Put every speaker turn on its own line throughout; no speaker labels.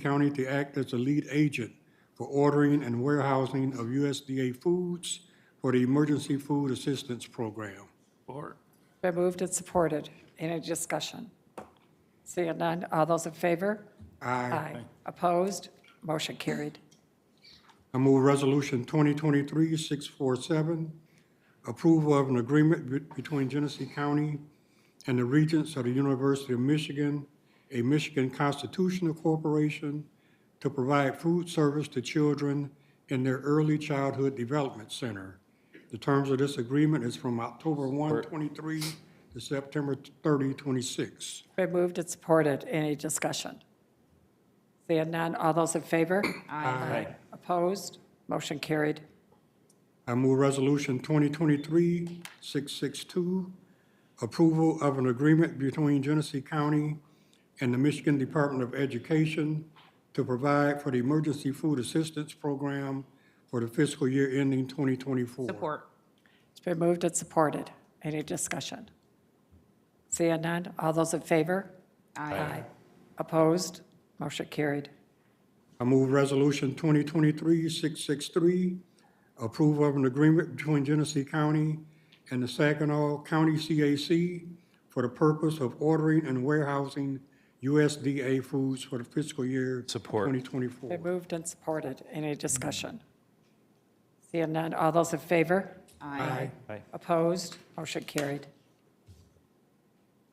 County to act as a lead agent for ordering and warehousing of USDA foods for the Emergency Food Assistance Program.
Been moved and supported. Any discussion? Seeing none, all those in favor? Aye. Opposed? Motion carried.
I move Resolution 2023-647, approval of an agreement be- between Genesee County and the Regents of the University of Michigan, a Michigan constitutional corporation, to provide food service to children in their early childhood development center. The terms of this agreement is from October 1, 23 to September 30, 26.
Been moved and supported. Any discussion? Seeing none, all those in favor? Aye. Opposed? Motion carried.
I move Resolution 2023-662, approval of an agreement between Genesee County and the Michigan Department of Education to provide for the Emergency Food Assistance Program for the fiscal year ending 2024.
Support.
It's been moved and supported. Any discussion? Seeing none, all those in favor? Aye. Opposed? Motion carried.
I move Resolution 2023-663, approval of an agreement between Genesee County and the Saginaw County CAC for the purpose of ordering and warehousing USDA foods for the fiscal year
Support.
2024.
Been moved and supported. Any discussion? Seeing none, all those in favor?
Aye.
Opposed? Motion carried.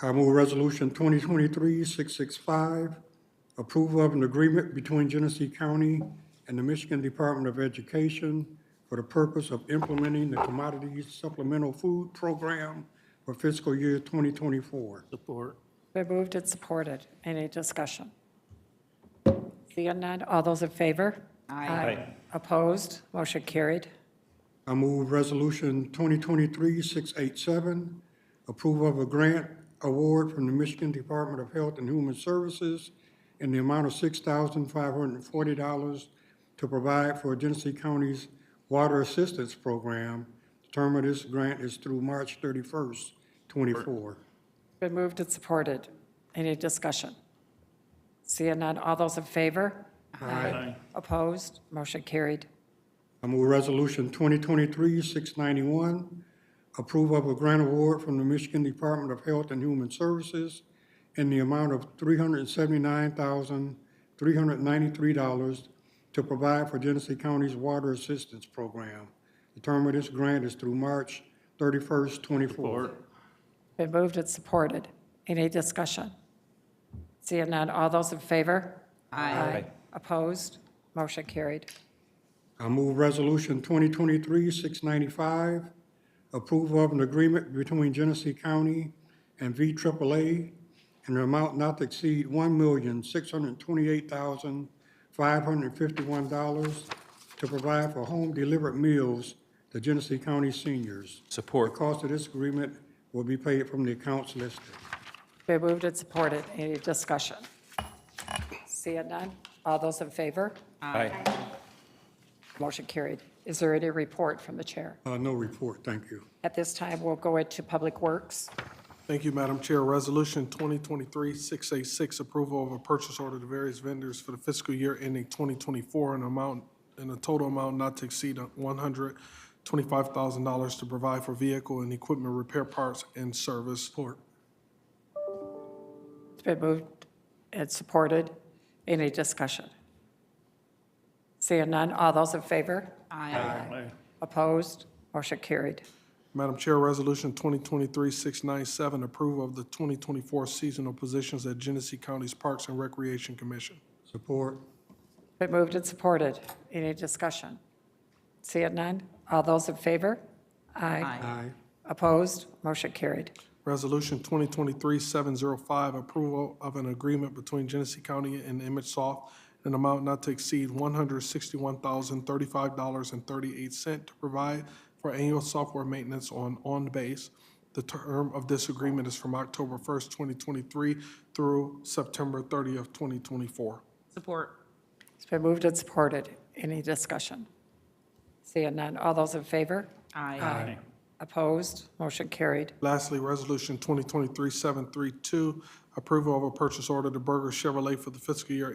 I move Resolution 2023-665, approval of an agreement between Genesee County and the Michigan Department of Education for the purpose of implementing the Commodity Supplemental Food Program for fiscal year 2024.
Been moved and supported. Any discussion? Seeing none, all those in favor? Aye. Opposed? Motion carried.
I move Resolution 2023-687, approval of a grant award from the Michigan Department of Health and Human Services in the amount of $6,540 to provide for Genesee County's Water Assistance Program. The term of this grant is through March 31st, 24.
Been moved and supported. Any discussion? Seeing none, all those in favor? Aye. Opposed? Motion carried.
I move Resolution 2023-691, approval of a grant award from the Michigan Department of Health and Human Services in the amount of $379,393 to provide for Genesee County's Water Assistance Program. The term of this grant is through March 31st, 24.
Been moved and supported. Any discussion? Seeing none, all those in favor? Aye. Opposed? Motion carried.
I move Resolution 2023-695, approval of an agreement between Genesee County and VAAA in an amount not to exceed $1,628,551 to provide for home-delivered meals to Genesee County seniors. The
Support.
cost of this agreement will be paid from the accounts listed.
Been moved and supported. Any discussion? Seeing none, all those in favor?
Aye.
Motion carried. Is there any report from the chair?
Uh, No report, thank you.
At this time, we'll go into Public Works.
Thank you, Madam Chair. Resolution 2023-686, approval of a purchase order to various vendors for the fiscal year ending 2024 in amount, in a total amount not to exceed $125,000 to provide for vehicle and equipment repair parts and service. Support.
It's been moved and supported. Any discussion? Seeing none, all those in favor? Aye. Opposed? Motion carried.
Madam Chair, Resolution 2023-697, approval of the 2024 seasonal positions at Genesee County's Parks and Recreation Commission.
Support.
Been moved and supported. Any discussion? Seeing none, all those in favor? Aye.
Aye.
Opposed? Motion carried.
Resolution 2023-705, approval of an agreement between Genesee County and ImageSoft in an amount not to exceed $161,035.38 to provide for annual software maintenance on OnBase. The term of this agreement is from October 1st, 2023 through September 30th, 2024.
Support.
It's been moved and supported. Any discussion? Seeing none, all those in favor?
Aye.
Opposed? Motion carried.
Lastly, Resolution 2023-732, approval of a purchase order to Burger Chevrolet for the fiscal year